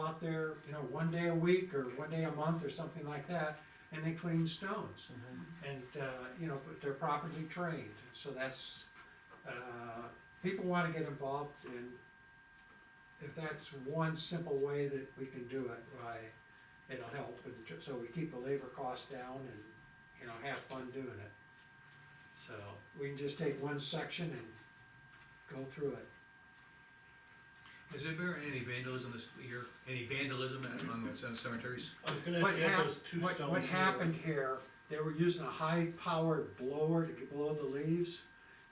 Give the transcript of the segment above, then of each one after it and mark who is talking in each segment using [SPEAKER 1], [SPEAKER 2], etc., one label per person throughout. [SPEAKER 1] out there, you know, one day a week or one day a month or something like that, and they clean stones. And, uh, you know, but they're properly trained, so that's, uh, people wanna get involved and if that's one simple way that we can do it, why, it'll help, and ju- so we keep the labor costs down and, you know, have fun doing it. So, we can just take one section and go through it.
[SPEAKER 2] Has there been any vandalism this year, any vandalism among the cemeteries?
[SPEAKER 3] I was gonna
[SPEAKER 1] What
[SPEAKER 3] ask you,
[SPEAKER 1] hap-
[SPEAKER 3] those two
[SPEAKER 1] what-
[SPEAKER 3] stones.
[SPEAKER 1] What
[SPEAKER 3] here.
[SPEAKER 1] happened here, they were using a high-powered blower to blow the leaves,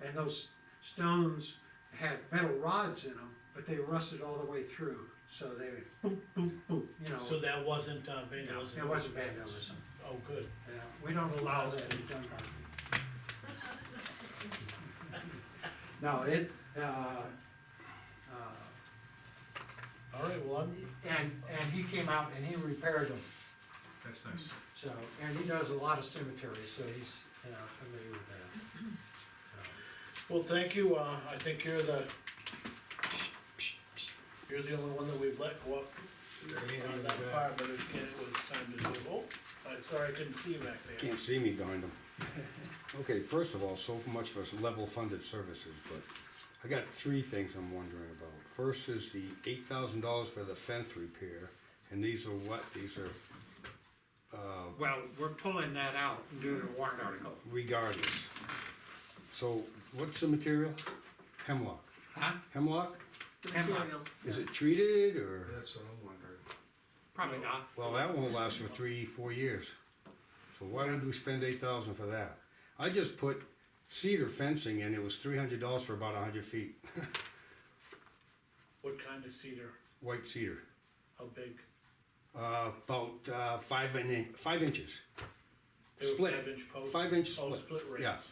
[SPEAKER 1] and those stones had metal rods in them, but they rusted all the way through, so they would boom, boom, boom, you know.
[SPEAKER 3] So that wasn't uh,
[SPEAKER 1] No,
[SPEAKER 3] vandalism?
[SPEAKER 1] it wasn't vandalism,
[SPEAKER 3] Oh, good.
[SPEAKER 1] yeah, we don't allow that in Dunbar. No, it, uh, uh,
[SPEAKER 3] All right, well, I'm,
[SPEAKER 1] and, and he came out and he repaired them,
[SPEAKER 2] That's nice.
[SPEAKER 1] So, and he does a lot of cemeteries, so he's, you know, familiar with that. So,
[SPEAKER 3] well, thank you, uh, I think you're the, you're the only one that we've let go up on that far, but again, it was time to do. Oh, I'm sorry, I couldn't see you back there.
[SPEAKER 4] Can't see me behind them. Okay, first of all, so much for level funded services, but I got three things I'm wondering about. First is the eight thousand dollars for the fence repair, and these are what, these are
[SPEAKER 1] Well, we're pulling that out and doing a warrant article.
[SPEAKER 4] regardless. So what's the material? Hemlock.
[SPEAKER 1] Huh?
[SPEAKER 4] Hemlock?
[SPEAKER 5] the
[SPEAKER 1] Hemlock.
[SPEAKER 5] material.
[SPEAKER 4] Is it treated or?
[SPEAKER 2] That's what I'm wondering.
[SPEAKER 1] Probably not.
[SPEAKER 4] Well, that won't last for three, four years. So why would we spend eight thousand for that? I just put cedar fencing in, it was three hundred dollars for about a hundred feet,
[SPEAKER 3] What kind of cedar,
[SPEAKER 4] white cedar.
[SPEAKER 3] how big?
[SPEAKER 4] Uh, about uh, five and in, five inches,
[SPEAKER 3] They were
[SPEAKER 4] Split.
[SPEAKER 3] Five inch post?
[SPEAKER 4] Five inch
[SPEAKER 3] Oh,
[SPEAKER 4] split.
[SPEAKER 3] split
[SPEAKER 4] Yeah.
[SPEAKER 3] rails,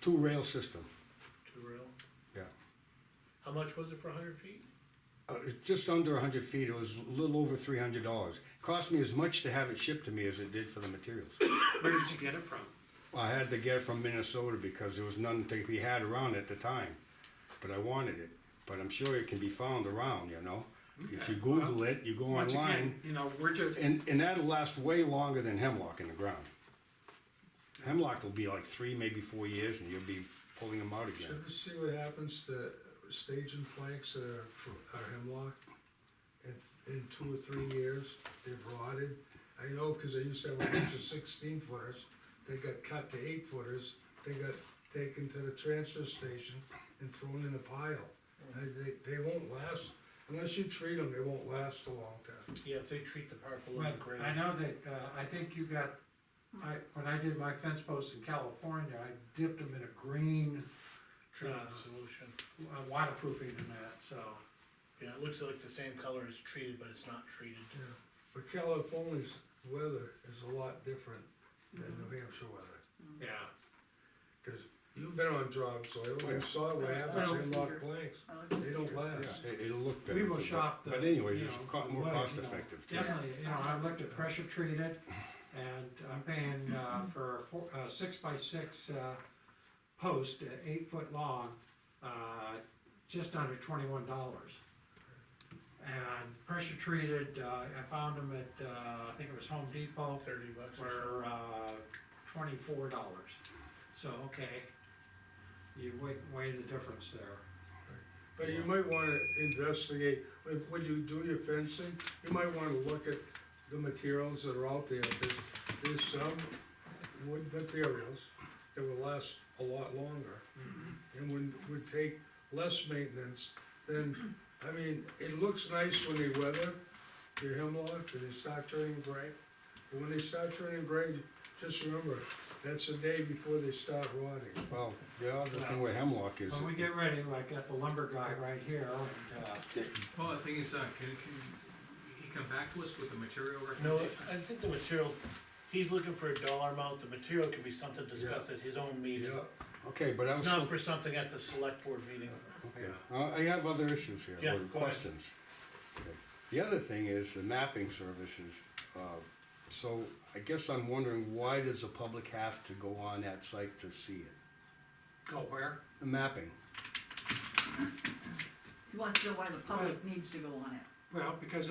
[SPEAKER 4] two rail system.
[SPEAKER 3] two rail.
[SPEAKER 4] Yeah,
[SPEAKER 3] How much was it for a hundred feet?
[SPEAKER 4] uh, it's just under hundred feet. It was a little over three hundred dollars. Cost me as much to have it shipped to me as it did for the materials.
[SPEAKER 1] Where did you get it from?
[SPEAKER 4] I had to get it from Minnesota because there was none to be had around at the time, but I wanted it. But I'm sure it can be found around, you know. If you
[SPEAKER 1] Okay,
[SPEAKER 4] Google
[SPEAKER 1] well,
[SPEAKER 4] it, you go
[SPEAKER 1] Once again,
[SPEAKER 4] online,
[SPEAKER 1] You know, we're just,
[SPEAKER 4] and and that'll last way longer than hemlock in the ground. Hemlock will be like three, maybe four years, and you'll be pulling them out again.
[SPEAKER 6] Should we see what happens to stage and planks that are, fr- are hemlock? In, in two or three years, they've rotted. I know, cause I used to have a bunch of sixteen footers, they got cut to eight footers, they got taken to the transfer station and thrown in a pile. And they, they won't last, unless you treat them, they won't last a long time.
[SPEAKER 3] Yeah, if they treat the park a
[SPEAKER 1] well,
[SPEAKER 3] little great.
[SPEAKER 1] I know that, uh, I think you got, I, when I did my fence posts in California, I dipped them in a green
[SPEAKER 3] Treatment
[SPEAKER 1] uh,
[SPEAKER 3] solution.
[SPEAKER 1] uh, waterproofing and that, so.
[SPEAKER 3] Yeah, it looks like the same color as treated, but it's not treated.
[SPEAKER 6] Yeah. But California's weather is a lot different than New Hampshire weather.
[SPEAKER 1] Yeah.
[SPEAKER 6] Cause you've been on job soil, you saw what happens
[SPEAKER 5] Well,
[SPEAKER 6] in lock
[SPEAKER 5] cedar.
[SPEAKER 6] planks,
[SPEAKER 5] I like
[SPEAKER 6] they
[SPEAKER 5] this.
[SPEAKER 6] don't last.
[SPEAKER 4] Yeah, it, it'll look better.
[SPEAKER 1] We will
[SPEAKER 4] too, but-
[SPEAKER 1] shop the.
[SPEAKER 4] But anyways,
[SPEAKER 1] you
[SPEAKER 4] it's
[SPEAKER 1] know,
[SPEAKER 4] co-
[SPEAKER 1] the
[SPEAKER 4] more
[SPEAKER 1] wood,
[SPEAKER 4] cost
[SPEAKER 1] you know.
[SPEAKER 4] effective too.
[SPEAKER 1] Definitely, you know, I've looked at pressure treated, and I'm paying, uh, for a four, uh, six by six, uh, post, uh, eight foot long, uh, just under twenty-one dollars. And pressure treated, uh, I found them at, uh, I think it was Home Depot,
[SPEAKER 3] Thirty bucks or something.
[SPEAKER 1] for, uh, twenty-four dollars. So, okay, you weigh, weigh the difference there.
[SPEAKER 6] But you might wanna investigate, when, when you do your fencing, you might wanna look at the materials that are out there. There's, there's some wood materials that will last a lot longer.
[SPEAKER 1] Mm-hmm.
[SPEAKER 6] And would, would take less maintenance than, I mean, it looks nice when they weather, your hemlock, and they start turning gray. But when they start turning gray, just remember, that's the day before they start rotting.
[SPEAKER 4] Well, the other thing with hemlock is,
[SPEAKER 1] When we get ready, like got the lumber guy right here, and, uh,
[SPEAKER 2] Well, the thing is, uh, can, can he come back to us with the material
[SPEAKER 3] No,
[SPEAKER 2] recommendation?
[SPEAKER 3] I think the material, he's looking for a dollar amount, the material could be something discussed at his own meeting.
[SPEAKER 6] Yeah.
[SPEAKER 4] okay, but I
[SPEAKER 3] It's
[SPEAKER 4] was,
[SPEAKER 3] not
[SPEAKER 4] still-
[SPEAKER 3] for something at the select board meeting.
[SPEAKER 4] okay. Uh, I have other issues here,
[SPEAKER 3] Yeah,
[SPEAKER 4] or
[SPEAKER 3] go ahead.
[SPEAKER 4] questions. Okay. The other thing is the mapping services, uh, so I guess I'm wondering, why does the public have to go on that site to see it?
[SPEAKER 1] go where?
[SPEAKER 4] The mapping,
[SPEAKER 5] He wants to know why the public needs to go on it.
[SPEAKER 1] Well, because